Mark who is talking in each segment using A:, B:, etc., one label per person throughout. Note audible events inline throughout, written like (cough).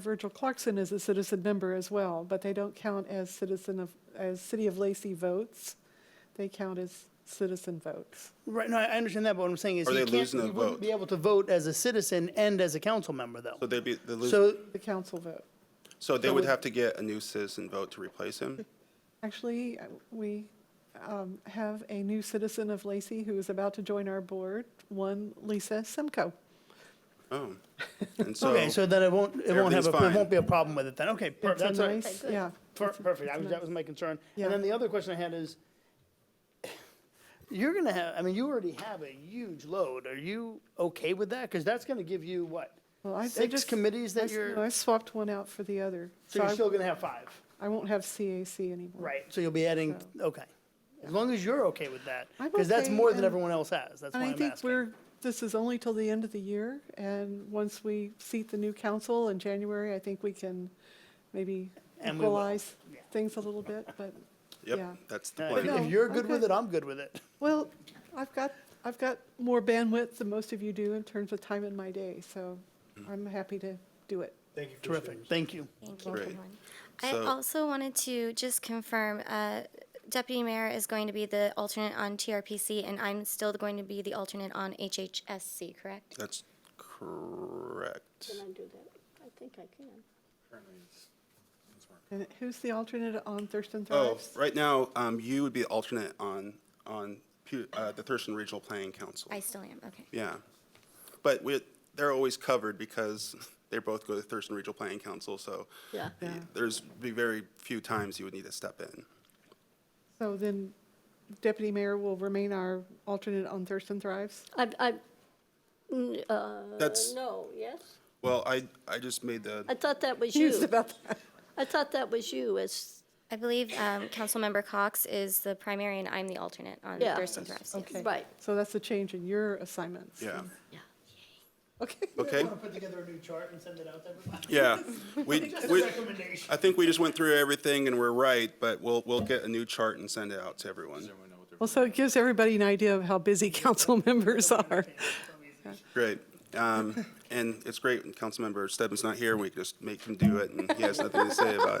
A: Virgil Clarkson is a citizen member as well, but they don't count as citizen of, as City of Lacey votes. They count as citizen votes.
B: Right, no, I I understand that, but what I'm saying is
C: Or
B: he
C: they
B: can't,
C: losing
B: he
C: the
B: wouldn't
C: vote.
B: be able to vote as a citizen and as a council member, though.
C: So they'd be, they lose,
B: So,
A: The council vote.
C: so they would have to get a new citizen vote to replace him?
A: Actually, uh, we um, have a new citizen of Lacey who is about to join our board, one Lisa Simco.
B: (laughs)
C: Oh. And so,
B: okay, so then it won't, it won't have,
C: everything's
B: a it
C: fine.
B: won't be a problem with it then, okay. per-
A: It's a
B: that's all right.
A: nice, yeah.
B: Per- Perfect, I was- that was my concern.
A: Yeah.
B: And then the other question I had is, you're gonna have, I mean, you already have a huge load, are you okay with that? Because that's gonna give you, what,
A: Well, I- I
B: six
A: just-
B: committees
A: I
B: that
A: s-
B: you're,
A: no, I swapped one out for the other.
B: so you're
A: I-
B: still gonna have five?
A: I won't have CAC anymore.
B: Right, so you'll be adding, okay. As long as you're okay with that,
A: I'm
B: because that's
A: okay,
B: more than
A: and-
B: everyone else has, that's why
A: And
B: I'm
A: I
B: asking.
A: think we're, this is only till the end of the year, and once we seat the new council in January, I think we can maybe
B: And we will,
A: equalize
B: yeah.
A: things a little bit, but, yeah.
C: yep, that's the
B: Uh, If
C: plan.
A: No,
B: if you're good
A: okay.
B: with it, I'm good with it.
A: Well, I've got, I've got more bandwidth than most of you do in terms of time in my day, so
C: Mm-hmm.
A: I'm happy to do it.
B: Thank you. Terrific, thank you.
D: Thank you,
C: Great.
D: everyone. I
C: So-
D: also wanted to just confirm, uh, Deputy Mayor is going to be the alternate on TRPC, and I'm still going to be the alternate on HHSC, correct?
C: That's correct.
E: Can I do that? I think I can.
A: And who's the alternate on Thurston
C: Oh,
A: Thrives?
C: right now, um, you would be alternate on, on, pu- uh, the Thurston Regional Planning Council.
D: I still am, okay.
C: Yeah. But we, they're always covered because (laughs) they both go to Thurston Regional Planning Council, so
E: Yeah.
A: Yeah.
C: there's be very few times you would need to step in.
A: So then Deputy Mayor will remain our alternate on Thurston Thrives?
E: I, I, n- uh,
C: That's-
E: no, yes?
C: Well, I, I just made the,
E: I thought
A: (laughs)
E: that was
A: Confused
E: you.
A: about that.
E: I thought that was you as,
D: I believe um, Councilmember Cox is the primary, and I'm the alternate on
E: Yeah.
D: Thurston Thrives. yes.
A: Okay.
E: Right.
A: So that's a change in your assignments.
C: yeah,
A: (laughs) Okay.
C: okay?
B: put together a new chart and send it out to
C: (laughs)
B: everybody?
C: Yeah.
B: (laughs)
C: We, we,
B: recommendation.
C: I think we just went through everything and we're right, but we'll, we'll get a new chart and send it out to everyone.
A: Well, so it gives everybody an idea of how busy (laughs) council members are.
C: Great. (laughs) Um, and it's great when Councilmember Stebbins not here, we can just make him do it and he has nothing to say about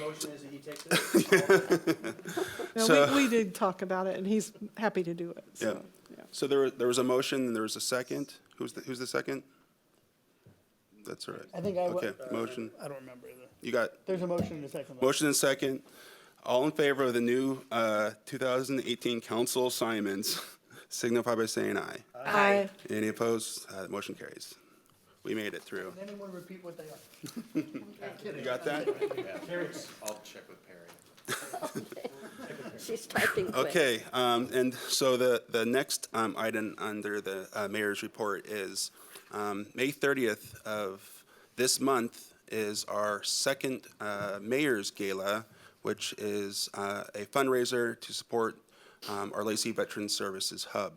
B: (laughs) Motion is that he takes it?
A: No,
C: So-
A: we, we did talk about it, and he's happy to do it,
C: Yeah.
A: so, yeah.
C: So there, there was a motion and there was a second. Who's the, who's the second? That's all right.
B: I think I wa-
C: Okay, motion.
B: I don't remember either.
C: You got
B: There's a motion and a second.
C: motion and second. All in favor of the new, uh, 2018 council assignments (laughs) signify by saying aye.
A: Aye.
C: Any opposed? Uh, the motion carries. We made it through.
B: Anyone repeat what they are?
C: You got that?
F: I'll check with Perry.
E: she's typing quick.
C: Okay, um, and so the, the next, um, item under the, uh, mayor's report is, um, May thirtieth of this month is our second, uh, mayor's gala, which is, uh, a fundraiser to support, um, our Lacey Veteran Services Hub.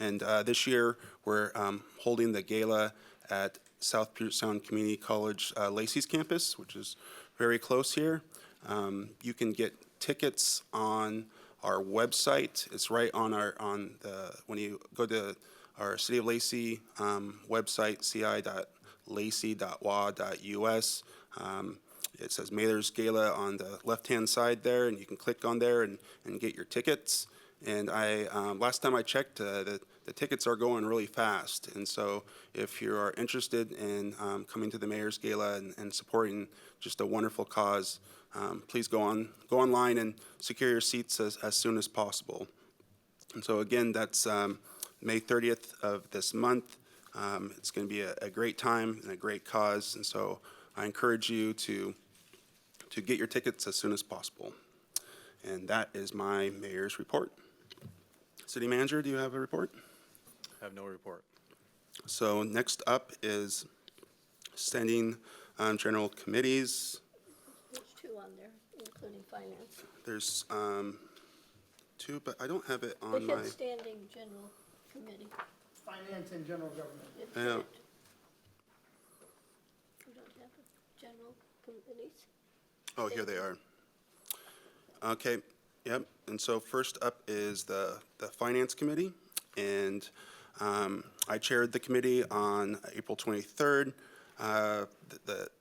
C: And uh, this year, we're um, holding the gala at South Puget Sound Community College uh, Lacey's campus, which is very close here. Um, you can get tickets on our website. It's right on our on the when you go to our City of Lacey um, website, ci.lacey.wa.us. Um, it says Mather's Gala on the left-hand side there, and you can click on there and, and get your tickets. And I, um, last time I checked, uh, the, the tickets are going really fast. And so if you are interested in um, coming to the Mayor's Gala and, and supporting just a wonderful cause, um, please go on, go online and secure your seats as, as soon as possible. And so again, that's um, May 30th of this month. Um, It's going to be a a great time and a great cause, and so I encourage you to, to get your tickets as soon as possible. And that is my mayor's report. City manager, do you have a report?
F: Have no report.
C: So next up is standing um, general committees.
E: There's two on there, including finance.
C: There's um, two, but I don't have it on
E: We
C: my,
E: had standing general committee.
B: Finance and general government.
E: It's
C: I know.
E: it. We don't have a general committees.
C: oh, here they are. Okay, yep. And so first up is the, the Finance Committee. And um, I chaired the committee on April 23rd. Uh, the- The